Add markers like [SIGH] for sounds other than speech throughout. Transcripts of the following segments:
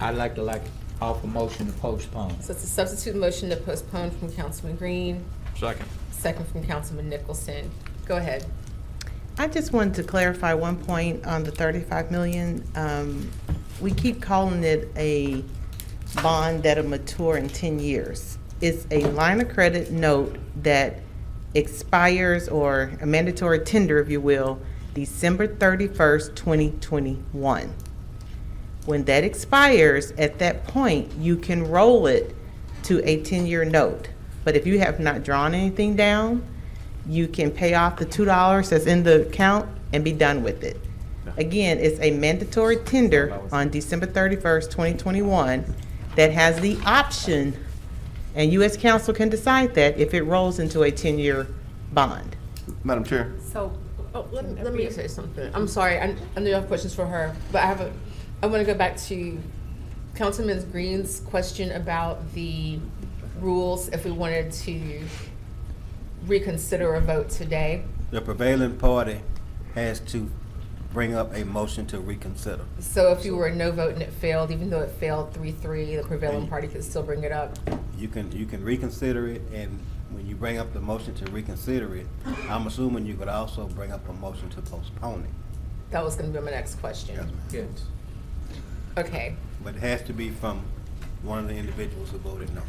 I'd like to like offer motion to postpone. So it's a substitute motion to postpone from Councilman Green, Second. second from Councilman Nicholson. Go ahead. I just wanted to clarify one point on the 35 million. Um, We keep calling it a bond that'll mature in 10 years. It's a line of credit note that expires, or a mandatory tender, if you will, December 31st, 2021. When that expires, at that point, you can roll it to a 10-year note. But if you have not drawn anything down, you can pay off the $2 that's in the account and be done with it. Again, it's a mandatory tender on December 31st, 2021, that has the option, and you as council can decide that, if it rolls into a 10-year bond. Madam Chair, So, oh, let me, let me say something. I'm sorry, I, I know you have questions for her, but I have a, I want to go back to Councilman Green's question about the rules, if we wanted to reconsider a vote today. The prevailing party has to bring up a motion to reconsider. So if you were a no vote and it failed, even though it failed three-three, the prevailing party could still bring it up. You can, you can reconsider it, and when you bring up the motion to reconsider it, I'm assuming you could also bring up a motion to postpone it. That was going to be my next question. Yes, ma'am. Yes. Okay, But it has to be from one of the individuals who voted no.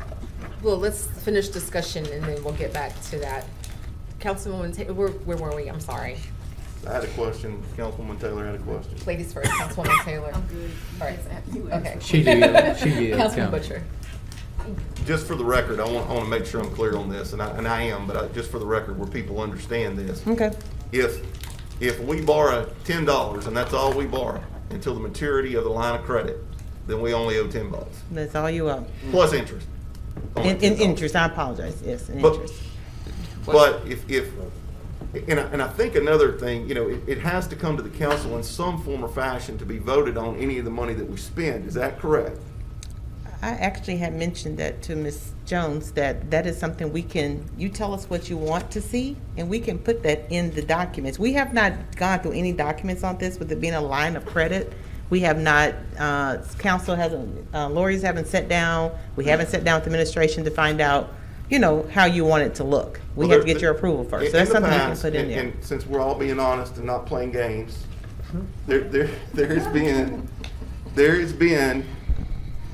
well, let's finish discussion and then we'll get back to that. Councilwoman, Ta- where, where were we? I'm sorry. I had a question. Councilwoman Taylor had a question. Ladies first, Councilwoman Taylor. [LAUGHS] I'm good. All right, okay. She did, [LAUGHS] she did, Councilman. Councilman Butcher. Just for the record, I want, I want to make sure I'm clear on this, and I, and I am, but I, just for the record, where people understand this. Okay. If, if we borrow ten dollars, and that's all we borrow, until the maturity of the line of credit, then we only owe ten bucks, That's all you owe. plus interest. Only In, in $10. interest, I apologize, yes, in But- interest. But if, if, and I, and I think another thing, you know, it, it has to come to the council in some form or fashion to be voted on any of the money that we spend, is that correct? I actually had mentioned that to Ms. Jones, that that is something we can, you tell us what you want to see, and we can put that in the documents. We have not gone through any documents on this, with it being a line of credit. We have not, uh, council hasn't, uh, lawyers haven't sat down, we haven't sat down with administration to find out, you know, how you want it to look. We Well, have to there- get your approval first, so in that's the something we can past, put in and- there. And since we're all being honest and not playing games, Mm-hmm. there, there, there has been, there has been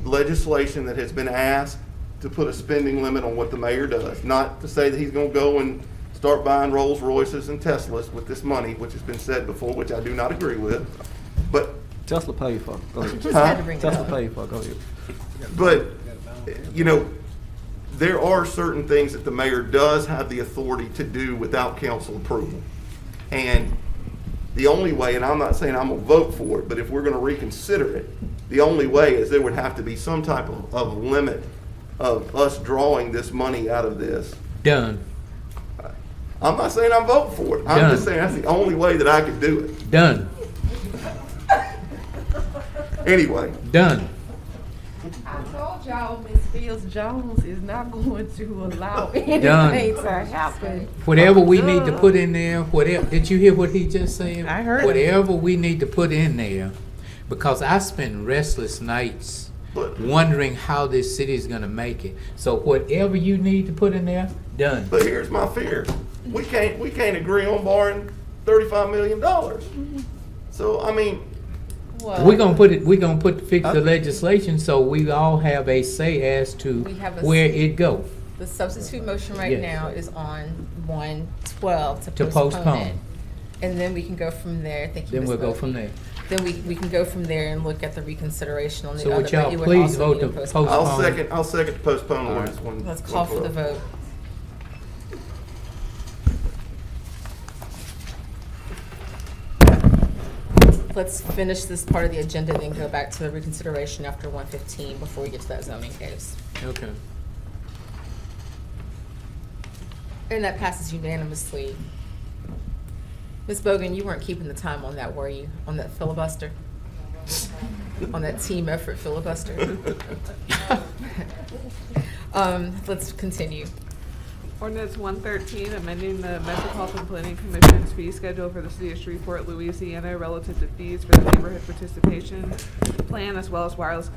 legislation that has been asked to put a spending limit on what the mayor does. Not to say that he's gonna go and start buying Rolls Royces and Teslas with this money, which has been said before, which I do not agree with. But Tesla paid for it. Go ahead. Just had to Huh? bring it Tesla up. paid for it. Go ahead. But, you know, there are certain things that the mayor does have the authority to do without council approval. And the only way, and I'm not saying I'm gonna vote for it, but if we're gonna reconsider it, the only way is there would have to be some type of, of limit of us drawing this money out of this. Done, I'm not saying I'm voting for it. I'm just Done. saying that's the only way that I could do it. done, Anyway, done. I told y'all Miss Fields Jones is not [LAUGHS] going to allow Done. anything to happen. Whatever we need to put in there, whatever, did you hear what he just said? I heard. Whatever we need to put in there, because I spend restless nights But- wondering how this city is gonna make it. So whatever you need to put in there, done. but here's my fear. We can't, we can't agree on borrowing thirty-five million dollars. So, I mean, We're gonna put it, we're gonna put, fix the legislation so we all have a say as to We have a where say. it go. The substitute motion right Yes. now is on one twelve to To postpone it. postpone. And then we can go from there. Thank you, Then Ms. we'll go Murphy. from there. Then we, we can go from there and look at the reconsideration on the So other. would but y'all you please also vote need to postpone. post- I'll Postpone. second, I'll second to postpone All right. ordinance one. Let's call for the 112. vote. Let's finish this part of the agenda, then go back to the reconsideration after one fifteen before we get to that zoning case. Okay. And that passes unanimously. Ms. Bogan, you weren't keeping the time on that, were you? On that filibuster? On that team effort filibuster? [LAUGHS] Um, let's continue. Ordinance one thirteen, amending the Metropolitan Planning Commission's fee schedule for the city of Shreveport, Louisiana relative to fees for the neighborhood participation plan as well as wireless